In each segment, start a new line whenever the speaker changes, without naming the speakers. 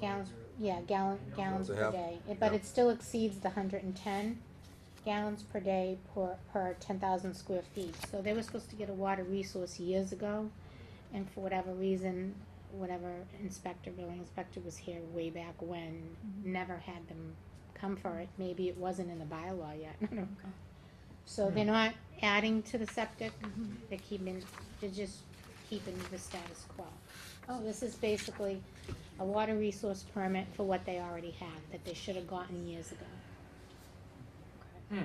Gallons, yeah, gallon, gallons
a
per
half,
day, It- but
yeah.
it still exceeds the hundred and ten gallons per day per, per ten thousand square feet. So they were supposed to get a water resource years ago, and for whatever reason, whatever inspector, building inspector was here way back when, never had them come for it, maybe it wasn't in the bylaw yet, I don't know. So they're not adding to the septic, they're keeping, they're just keeping the status quo. So Oh, this is basically a water resource permit for what they already have, that they should have gotten years ago.
Hmm.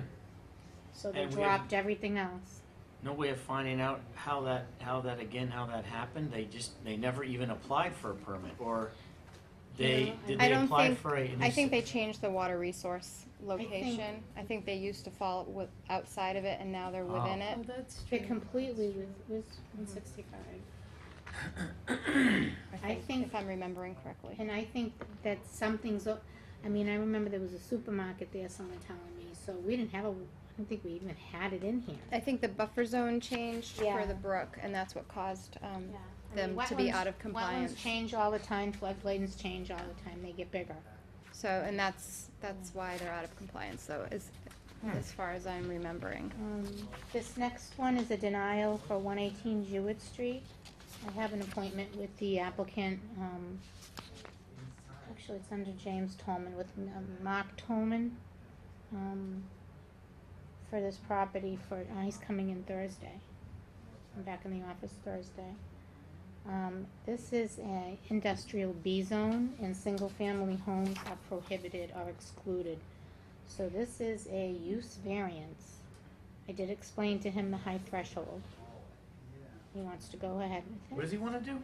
So they
And we-
dropped everything else.
No way of finding out how that, how that, again, how that happened, they just, they never even applied for a permit, or they,
No, I-
did
I
they
don't
apply
think-
for a? and
I
s-
think they changed the water resource location. I think they used to fall with, outside of it and now they're within it.
Oh, that's
They
true.
completely was, was one sixty-five. I
I think,
think-
if I'm remembering correctly.
And I think that something's, o- I mean, I remember there was a supermarket there, someone telling me, so we didn't have a, I don't think we even had it in here.
I think the buffer zone changed
Yeah.
for the brook and that's what caused, um,
Yeah. I
them
mean,
to be
wetlands-
out of compliance.
Wetlands change all the time, floodplains change all the time, they get bigger.
So, and that's, that's why they're out of compliance though, as, as far as I'm remembering.
Um, This next one is a denial for one eighteen Jewett Street. I have an appointment with the applicant, um, actually, it's under James Tolman with um, Mark Tolman, um, for this property for, uh, he's coming in Thursday. I'm back in the office Thursday. Um, this is a industrial B zone and single-family homes are prohibited or excluded. So this is a use variance. I did explain to him the high threshold. He wants to go ahead
What
with it.
does he wanna do?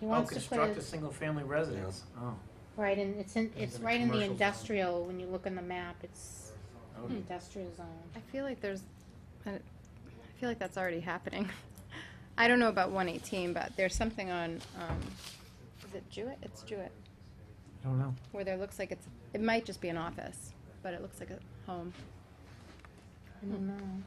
He
Oh,
wants to put
construct a
it,
single-family residence, oh,
right in, it's in, it's
in a
right in the
commercial zone. Oh,
industrial, when you look on the map, it's
okay.
industrial zone.
I feel like there's, I I feel like that's already happening. I don't know about one eighteen, but there's something on, um, is it Jewett? It's Jewett,
I don't know.
where there looks like it's, it might just be an office, but it looks like a home.
I don't know.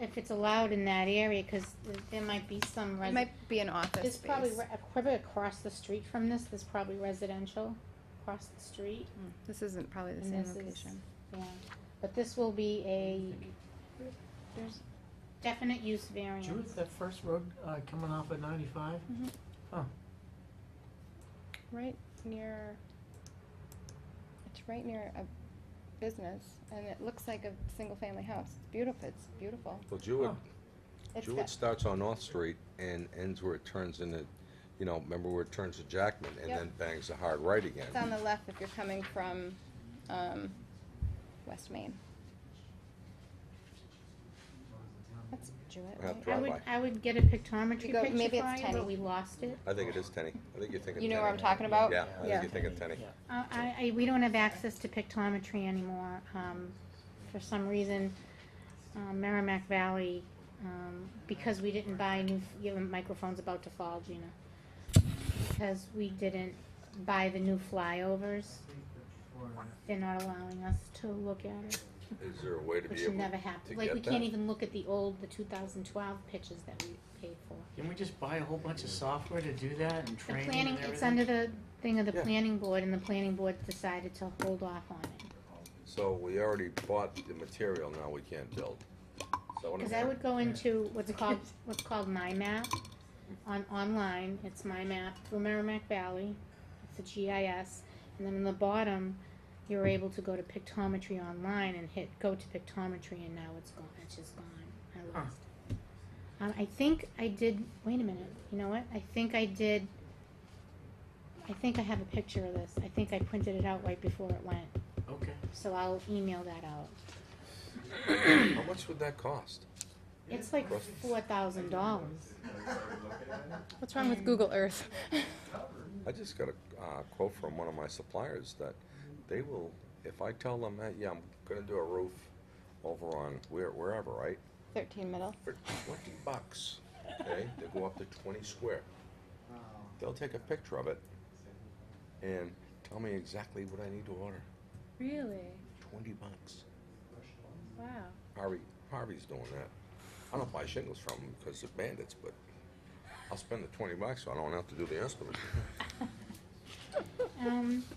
If it's allowed in that area, cause th- there might be some
It
resi-
might be an office
there's probably,
space.
re- probably across the street from this, there's probably residential across the street.
Hmm. This isn't probably the
And
same
this is-
location.
Yeah, but this will be a
There's,
definite use variance.
Jewett, that first road, uh, coming off at ninety-five?
Mm-hmm. right near, it's right near a business, and it looks like a single-family house. It's beautiful, it's beautiful.
Well, Jewett,
Oh, It's
Jewett
got,
starts on North Street and ends where it turns into, you know, remember where it turns to Jackman and
Yep.
then bangs a hard right again.
it's on the left if you're coming from, um, West Main. That's Jewett,
Yeah,
right?
dri-
I would,
drive-by.
I would get a pictometry
You go-
picture
maybe it's
for you, but
tiny.
we lost it.
I think it is Tenny. I think you're thinking
You know
Tenny.
where I'm talking about?
Yeah, I
Yeah.
think you're thinking Tenny.
Yeah.
Uh, I, I, we don't have access to pictometry anymore, um, for some reason, um, Merrimack Valley, um, because we didn't buy new, f- your microphone's about to fall, Gina. Because we didn't buy the new flyovers, they're not allowing us to look at it.
Is there a way to
Which
be able
never
to
happened. Like, we
get
can't
that?
even look at the old, the two thousand twelve pictures that we paid for.
Can we just buy a whole bunch of software to do that and
The
training and
planning,
everything?
it's under the thing of the
Yeah.
planning board, and the planning board decided to hold off on it.
So we already bought the material, now we can't build. So what I'm
Cause I
saying-
would go into what's called, what's called My Map on, online, it's My Map through Merrimack Valley, it's a GIS, and then in the bottom, you're able to go to pictometry online and hit go to pictometry, and now it's gone, it's just gone, I
Huh.
lost it. Um, I think I did, wait a minute, you know what, I think I did, I think I have a picture of this, I think I printed it out right before it went,
Okay,
so I'll email that out.
How much would that cost?
It's like four thousand dollars.
What's wrong with Google Earth?
I just got a uh, quote from one of my suppliers that they will, if I tell them, hey, yeah, I'm gonna do a roof over on where, wherever, right?
Thirteen middle.
for twenty bucks, okay, they go up to twenty square. They'll take a picture of it and tell me exactly what I need to order,
Really?
twenty bucks.
Wow.
Harvey, Harvey's doing that. I don't buy shingles from him because they're bandits, but I'll spend the twenty bucks so I don't have to do the estimate.
um, the